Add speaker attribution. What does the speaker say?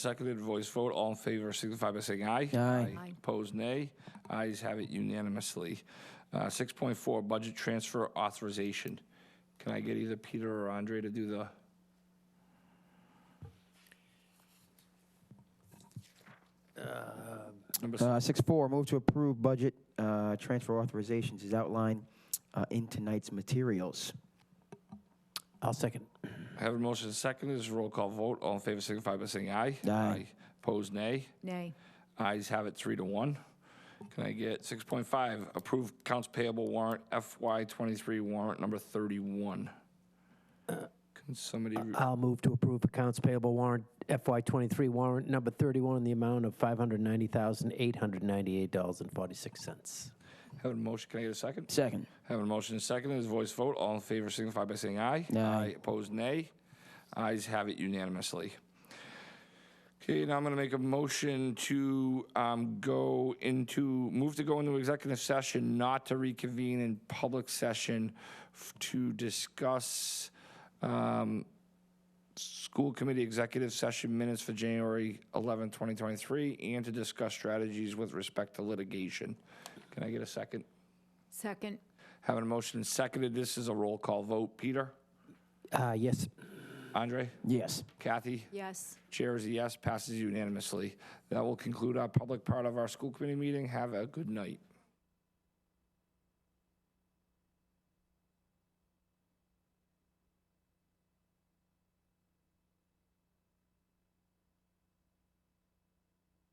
Speaker 1: Seconded, voice vote, all in favor signify by saying aye.
Speaker 2: Aye.
Speaker 3: Aye.
Speaker 1: Opposed, nay. Ayes have it unanimously. Uh, 6.4, budget transfer authorization. Can I get either Peter or Andre to do the, number, s-
Speaker 2: Uh, Six four, move to approve budget uh, transfer authorizations is outlined uh, in tonight's materials.
Speaker 4: I'll second.
Speaker 1: have a motion seconded, this is a roll call vote, all in favor signify by saying aye.
Speaker 2: Aye.
Speaker 1: Opposed, nay.
Speaker 3: Nay.
Speaker 1: Ayes have it three to one. Can I get 6.5, approved accounts payable warrant FY23 warrant number 31? Can somebody, re-
Speaker 4: I'll move to approve accounts payable warrant FY23 warrant number 31 in the amount of $590,898.46.
Speaker 1: have a motion, can I get a second?
Speaker 2: Second.
Speaker 1: Having a motion and second, is voice vote. All in favor signify by saying aye.
Speaker 2: Aye.
Speaker 1: Opposed, nay. Ayes have it unanimously. Okay, now I'm going to make a motion to um, go into, move to go into executive session, not to reconvene in public session f- to discuss um, school committee executive session minutes for January 11, 2023, and to discuss strategies with respect to litigation. Can I get a second?
Speaker 3: Second.
Speaker 1: Having a motion seconded, this is a roll call vote. Peter?
Speaker 4: Uh, Yes,
Speaker 1: Andre?
Speaker 2: Yes.
Speaker 1: Kathy?
Speaker 3: Yes.
Speaker 1: Chair is a yes, passes unanimously. That will conclude our public part of our school committee meeting. Have a good night.